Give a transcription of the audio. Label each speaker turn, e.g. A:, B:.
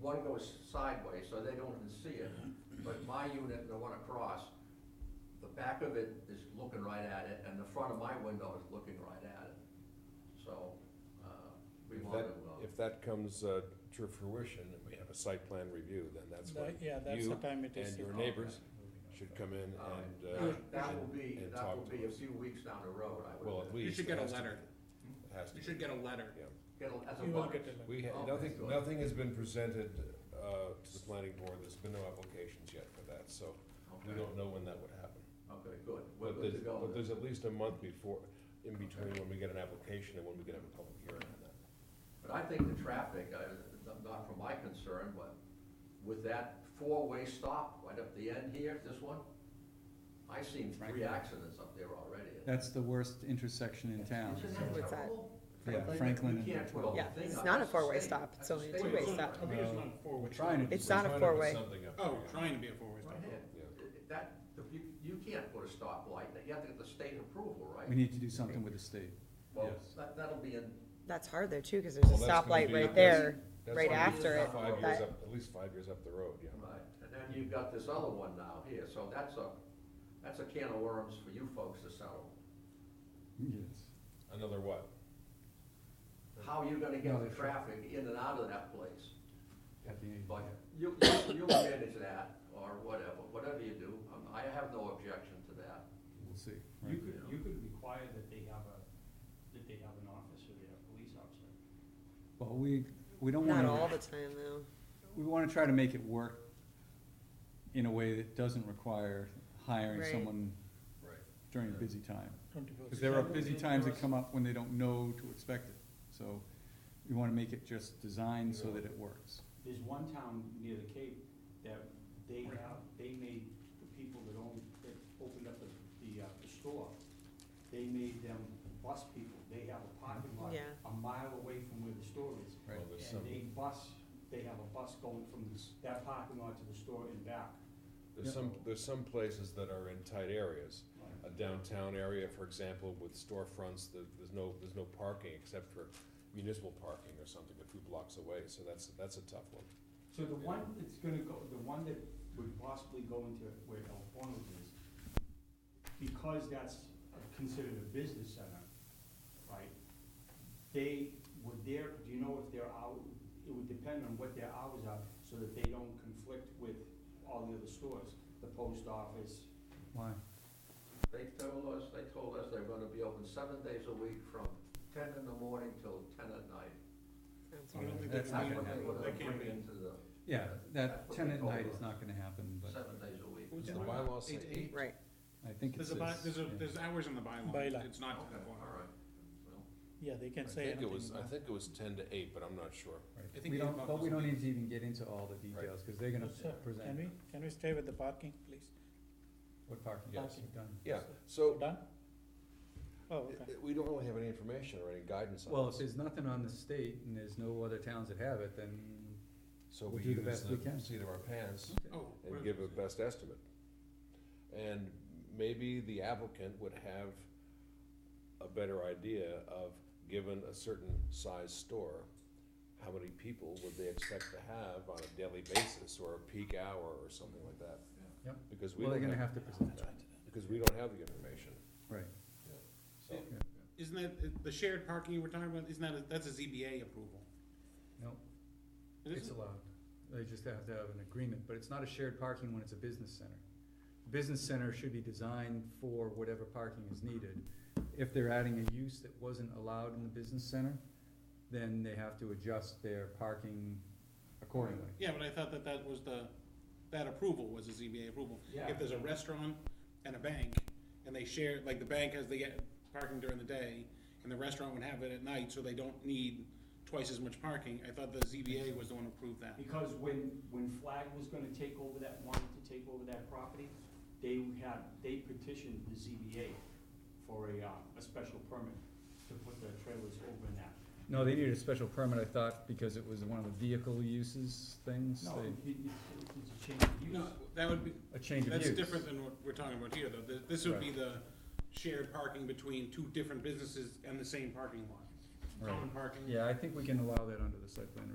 A: one goes sideways, so they don't even see it, but my unit and the one across, the back of it is looking right at it, and the front of my window is looking right at it. So, uh, we
B: If
A: want
B: that,
A: to, uh,
B: if that comes uh, to fruition and we have a site plan review, then that's when
C: That- Yeah, that's the
B: you
C: time it is.
B: and your neighbors should come in
D: Um,
A: all right.
B: and, uh.
A: That- that will
B: and-
A: be,
B: and
A: that
B: talk
A: will
B: to
A: be a
B: us.
A: few weeks down the road, I would.
B: Well, at
A: think.
B: least.
D: You should
B: it
D: get a
B: has to
D: letter.
B: be. It has to
D: You
B: be.
D: should get Oh, a letter.
B: Yeah.
A: Get a, as a
C: You will
A: butter.
C: get the letter.
B: We, ha-
A: Okay,
B: nothing,
A: good.
B: nothing has been presented, uh, to the planning board, there's been no applications yet for that, so we
A: Okay,
B: don't know when that would happen.
A: okay, good, we're
B: But
A: good to
B: there's,
A: go
B: but
A: then.
B: there's at least a month before, in between when we get an application and when we can have a public hearing on that.
A: But I think the traffic, I, not from my concern, but with that four-way stop right up the end here, this one, I've seen three accidents up there already.
E: That's the worst intersection in town.
A: Isn't that
F: What's that?
A: terrible?
E: Yeah,
A: Like, You
E: Franklin
A: can't
E: and.
A: put a whole
F: Yeah,
A: thing
F: it's
A: up.
F: not a
A: That's
F: four-way
A: state-
F: stop, it's
A: that's a
F: only a
A: state
F: two-way
A: road
F: stop.
A: right
D: I
A: there.
D: think it's not a four-way.
E: We're trying to.
F: It's not
B: Trying
F: a
B: to put
F: four-way.
B: something up
D: Oh,
B: there.
D: trying to be a four-way stop.
A: Right here.
B: Yeah.
A: It- That, the- you, you can't put a stoplight, you have to get the state approval,
E: We
A: right?
E: need to do something with the state.
A: Well,
E: Yes.
A: that, that'll be in,
F: That's hard though too, cause there's a
B: Well, that's gonna
F: stoplight
B: be-
F: right
B: that's-
F: there.
B: that's
F: right
B: gonna be
F: after
A: it,
B: Five years
F: but-
B: up, at least five years up the road, yeah.
A: right, and then you've got this other one now here, so that's a, that's a can of worms for you folks to settle.
E: Yes.
B: Another what?
A: How are you gonna get the traffic in and out of that place?
E: At the end.
A: But you, you- you'll manage that, or whatever, whatever you do, um, I have no objection to that.
E: We'll see.
G: You could, you could require that they have a, that they have an officer, they have a police officer.
E: Well, we, we don't
F: Not all the
E: wanna,
F: time though.
E: we wanna try to make it work in a way that doesn't require hiring
F: Right.
E: someone
B: Right.
E: during a busy time. Because there are busy
G: Probably
E: times that
G: yours.
E: come up when they don't know to expect it. So we wanna make it just designed so that it works.
G: There's one town near the Cape that they have, they made the people that own, that opened up the, the, uh, the store, they made them bus people, they have a parking lot
F: Yeah.
G: a mile away from where the store is.
E: Right.
B: Well, there's some,
G: And they bus, they have a bus going from this, that parking lot to the store and back.
B: there's some, there's some places that are in tight areas. A downtown area, for example, with storefronts, there, there's no, there's no parking except for municipal parking or something a few blocks away, so that's, that's a tough one.
G: So the one that's gonna go, the one that would possibly go into where El Forno's is, because that's considered a business center, right? They, were there, do you know if their hour, it would depend on what their hours are, so that they don't conflict with all the other stores, the post office.
E: Why?
A: They told us, they told us they're gonna be open seven days a week from ten in the morning till ten at night.
F: That's
G: I
F: right.
G: don't think
E: That's
G: they can
E: not
A: That's
G: be-
A: what
E: gonna
A: they're
E: happen.
A: gonna
G: They can't
A: bring into
G: be-
A: the
E: Yeah, that
A: That's what
E: ten
A: they
E: at
A: told
E: night
A: us.
E: is not gonna happen, but
A: seven days a week.
B: Does the
A: Okay,
B: bylaw say
D: Eight-
B: eight?
F: Right,
E: I think it's
D: There's a
E: this.
D: by, there's a,
E: yeah.
D: there's hours in the bylaw,
C: Bylaw.
D: it's not. to the
A: all
D: bylaw.
A: right. Well,
C: Yeah, they
B: I
C: can say
B: think it was,
C: anything.
B: I
C: about-
B: think it was ten to eight, but I'm not sure.
E: Right.
D: I think
E: We
D: the
E: don't,
D: inbox
E: but we
D: was
E: don't
D: big.
E: need to even get into all the details, cause they're gonna
C: Sir, Can
E: present
C: we, can we stay with the parking, please?
E: what parking
B: Yes.
E: lots you've done.
B: Yeah, so,
C: Done?
B: i-
C: Oh, okay.
B: i- we don't really have any information or any guidance
E: Well,
B: on
E: if
B: this,
E: there's nothing on the state and there's no other towns that have it, then,
B: so
E: we'll
B: we
E: do the
B: use
E: best we
B: the
E: can.
B: seat of our pants.
D: Oh.
B: and
D: where-
B: give a best estimate. And maybe the applicant would have a better idea of, given a certain size store, how many people would they expect to have on a daily basis or a peak hour or something like that?
E: Yeah. Yep.
B: Because we
E: well, they're
B: don't
E: gonna
B: have,
E: have to present that.
B: because we don't have the information,
E: Right.
B: so.
D: Isn't that, uh, the shared parking you were talking about, isn't that, a- that's a ZBA approval?
E: No,
D: Isn't
E: it's
D: it?
E: allowed. They just have to have an agreement, but it's not a shared parking when it's a business center. Business center should be designed for whatever parking is needed. If they're adding a use that wasn't allowed in the business center, then they have to adjust their parking accordingly.
D: Yeah, but I thought that that was the, that approval was a ZBA approval.
G: Yeah.
D: If there's a restaurant and a bank, and they share, like, the bank has, they get parking during the day, and the restaurant would have it at night, so they don't need twice as much parking, I thought the ZBA was the one who approved that.
G: Because when, when Flag was gonna take over that, wanted to take over that property, they had, they petitioned the ZBA for a, uh, a special permit to put the trailers over in that.
E: No, they needed a special permit, I thought, because it was one of the vehicle uses things,
G: No,
E: they-
G: it- it- it's a change of use.
D: No, that would be,
E: a change of use.
D: that's different than what we're talking about here, though, Th- this would be the shared parking between two different businesses and the same parking lot. Common
E: Right.
D: parking.
E: Yeah, I think we can allow that under the site plan